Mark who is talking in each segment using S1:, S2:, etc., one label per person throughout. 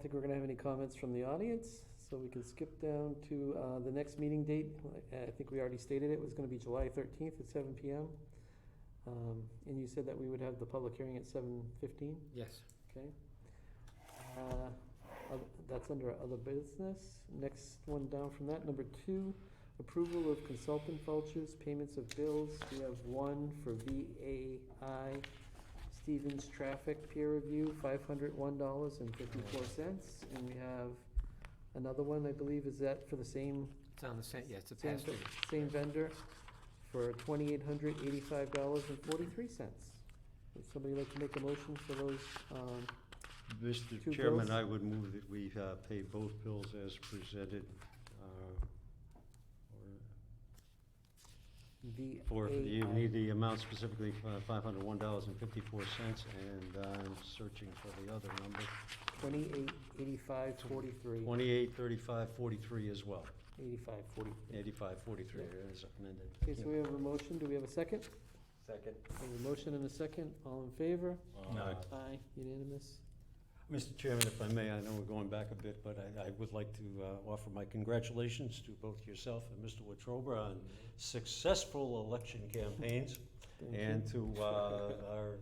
S1: think we're gonna have any comments from the audience, so we can skip down to, uh, the next meeting date. I, I think we already stated it was gonna be July thirteenth at seven PM. Um, and you said that we would have the public hearing at seven fifteen,
S2: Yes.
S1: okay? Uh, oth- That's under other business. Next one down from that, number two, approval of consultant vouchers, payments of bills. We have one for VAI Stevens Traffic Peer Review, five hundred one dollars and fifty-four cents. And we have another one, I believe, is that for the same,
S2: It's on the same, yeah, it's a
S1: same,
S2: pass through.
S1: same vendor for twenty-eight hundred eighty-five dollars and forty-three cents? Would somebody like to make a motion for those, um, Two
S3: Mr. Chairman,
S1: bills?
S3: I would move that we uh, pay both bills as presented uh, or-
S1: The
S3: for, you
S1: AI.
S3: need the amount specifically, uh, $501.54, and I'm searching for the other number,
S1: Twenty-eight, eighty-five, forty-three,
S3: 283543 as well,
S1: eighty-five, forty-three.
S3: 8543 as amended.
S1: Okay, so we have a motion, do we have a second?
S3: Second.
S1: We have a motion and a second, all in favor?
S3: No.
S1: Aye. Unanimous?
S3: Mr. Uh, Chairman, if I may, I know we're going back a bit, but I, I would like to uh, offer my congratulations to both yourself and Mr. Wetruba on successful election campaigns
S1: Thank you.
S3: and to uh, our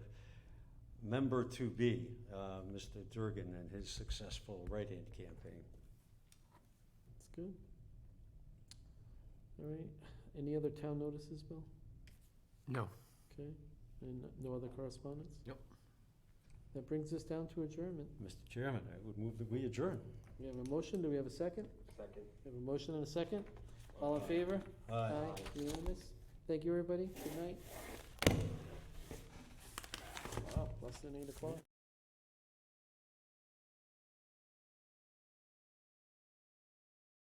S3: member-to-be, uh, Mr. Durgan, and his successful write-in campaign.
S1: That's good. All right, any other town notices, Bill?
S2: No.
S1: Okay, and no other correspondence?
S2: Yep.
S1: That brings us down to adjournment.
S3: Mr. Chairman, I would move that we adjourn.
S1: We have a motion, do we have a second?
S3: Second.
S1: We have a motion and a second, all in favor?
S3: Aye.
S1: Unanimous? Thank you, everybody, good night. Wow, less than eight o'clock.